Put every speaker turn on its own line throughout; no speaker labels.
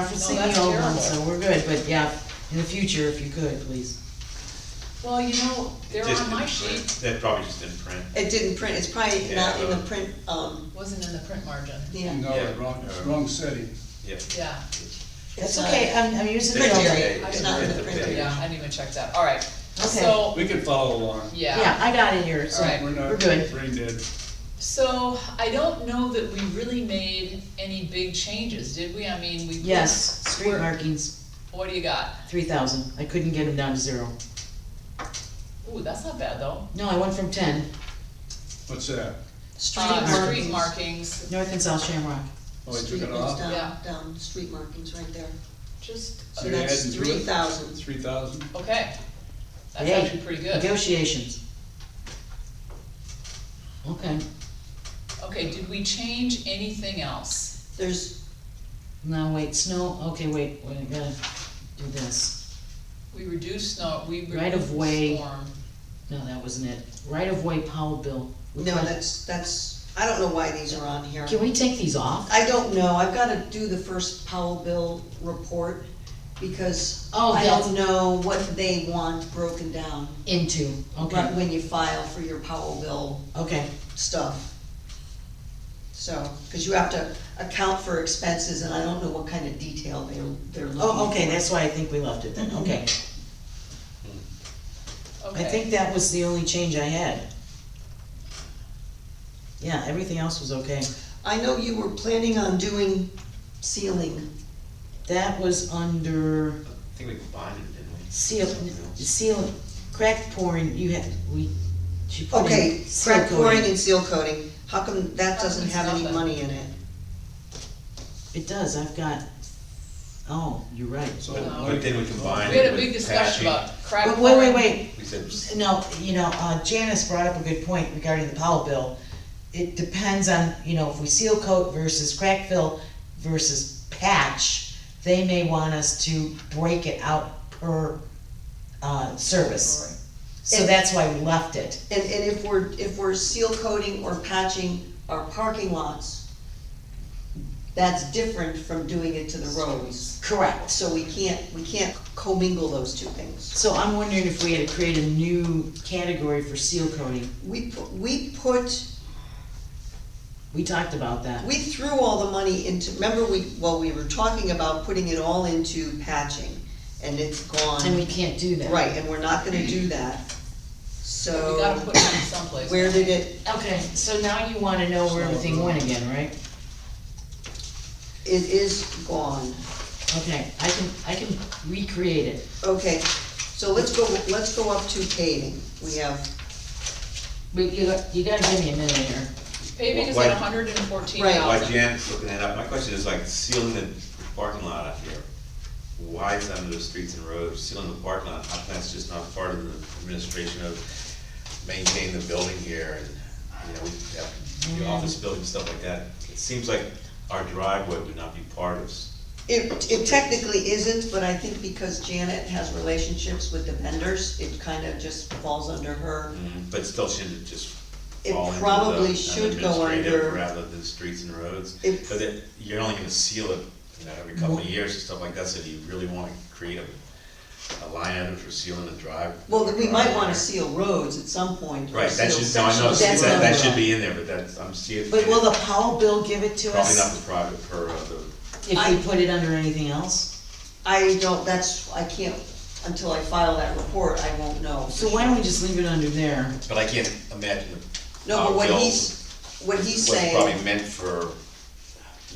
No,
seen
that's
the old one,
terrible.
so we're good, but yeah, in the future, if you could, please.
Well, you know, they're
Just
on my
didn't print.
sheet,
That probably just didn't print.
It didn't print, it's probably not in the print, um,
wasn't in the print margin,
yeah.
Yeah.
No, wrong, wrong city.
Yeah.
yeah,
That's
It's, uh,
okay, I'm, I'm using the
Print
old
area.
one.
It's not in the print area.
yeah, I didn't even check that, alright.
Okay.
So,
We can follow along.
Yeah, I got it here, so
Alright.
We're
we're
not
good.
brain dead.
So I don't know that we really made any big changes, did we? I mean, we. put-
Yes, street
we're-
markings,
What do you got?
three thousand, I couldn't get them down to zero.
Ooh, that's not bad though.
No, I went from ten,
What's that?
Street
Uh, street
markings.
markings,
north and south Shamrock.
Oh, I took
Street
it
markings
off?
down-
Yeah.
Down, street markings right there.
just,
So
And
you're
that's
adding to it?
3,000.
Three thousand?
okay. That's
Hey,
actually pretty good.
Negotiations. Okay,
Okay, did we change anything else?
There's,
now wait, snow, okay, wait, wait, I gotta do this.
We reduced snow, we reduced storm.
Right of way. No, that wasn't it. Right of way Powell bill. We
no,
got-
that's, that's, I don't know why these are on here.
Can we take these off?
I don't know, I've gotta do the first Powell bill report, because
Oh,
I
that's-
don't know what they want broken down.
Into,
But
okay,
when you file for your Powell bill
okay,
stuff. So, cause you have to account for expenses, and I don't know what kind of detail they're, they're looking for.
oh, okay, that's why I think we left it then,
Mm-hmm.
okay. I think
Okay,
that was the only change I had. Yeah, everything else was okay.
I know you were planning on doing ceiling.
That was under
I think we combined it, didn't we?
seal,
Something else.
seal, crack pouring, you had, we, she put in.
Okay,
seal
crack pouring
coating.
and seal coating, how come that
How come
doesn't
it's
have any
nothing?
money in it?
It does, I've got, oh, you're right.
So.
No.
like-
But then we combine
we had a
with
big discussion
patching.
about crack.
But wait, wait,
pouring.
wait,
We said,
No, you know, uh, Janice brought up a good point regarding the Powell bill. It depends on, you know, if we seal coat versus crack fill versus patch, they may want us to break it out per, uh, service. So
And-
that's why we left it.
And, and if we're, if we're seal coating or patching our parking lots, that's different from doing it to the roads.
Correct.
So we can't, we can't commingle those two things.
So I'm wondering if we had to create a new category for seal coating.
We, pu- we put,
We talked about that.
we threw all the money into, remember we, well, we were talking about putting it all into patching, and it's gone.
And we can't do that.
Right, and we're not gonna do that,
We gotta
so,
put it in someplace.
where did it,
Okay, so now you wanna know where everything went again, right?
it is gone.
Okay, I can, I can recreate it.
Okay, so let's go, let's go up to paving, we have,
But you, got- you gotta give me a minute here.
Paving is
Why-
at hundred and fourteen
Right.
why
thousand.
Jan's looking that up, my question is like sealing the parking lot out here. Why is that under the streets and roads, sealing the parking lot, how come that's just not part of the administration of maintaining the building here and, you know, we have the office building, stuff like that? It seems like our driveway would not be part of, s-
it, it technically isn't, but I think because Janet has relationships with the vendors, it kind of just falls under her.
but still shouldn't it just
It
fall into the
probably should go
administrative
under-
rather than streets and roads?
It-
But it, you're only gonna seal it, you know, every couple of years and stuff like that, so do you really wanna create a, a line item for sealing the drive?
Well, then we might wanna
driveway?
seal roads at some point. or
Right, that
seal
should, no, I know,
sections.
that, that should be in there, but that's, I'm seeing.
But will the Powell bill give it to
Probably not
us
the private per, uh, the,
if we put it under anything else?
I don't, that's, I can't, until I file that report, I won't know. for
So why don't
sure.
we just leave it under there?
but I can't imagine. the
No, but
power
what
bill
he's, what he's
Was
saying.
Uh, probably meant for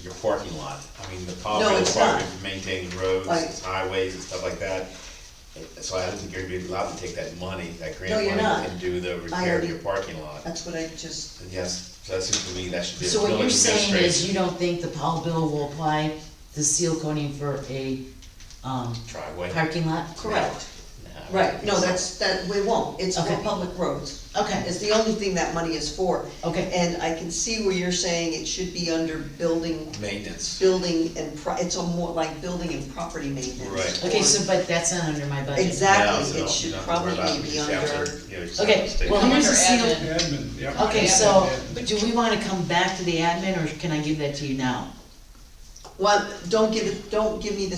your parking lot, I mean, the power
No,
bill is
it's
probably
not.
for maintaining roads,
Right.
it's highways and stuff like that. Uh, So I don't think you're gonna be allowed to take that money, that grant
No, you're
money,
not.
and do the repair of
already- Uh,
your parking lot.
That's what I just,
And yes, so that seems to me that should be a
So
village
what you're saying is
administration
you don't think the Powell bill will apply the seal coating for a, um,
driveway.
parking lot?
correct,
No.
right, no, that's, that, we won't, it's for
Okay.
public roads.
Okay,
It's the only thing that money is for.
okay,
And I can see where you're saying it should be under building,
Maintenance,
building and pro, it's a more like building and property maintenance.
Right.
okay,
or-
so, but that's not under my budget.
No, so
Exactly,
you
it should
don't have to worry
probably
about it.
be
You just have
under,
to, you know, just have
Okay,
to stay-
well,
Come
here's
under
a seal,
admin.
Admin, yeah.
okay,
Admin.
so,
Admin.
do we wanna come back to the admin, or can I give that to you now?
well, don't give it, don't give me the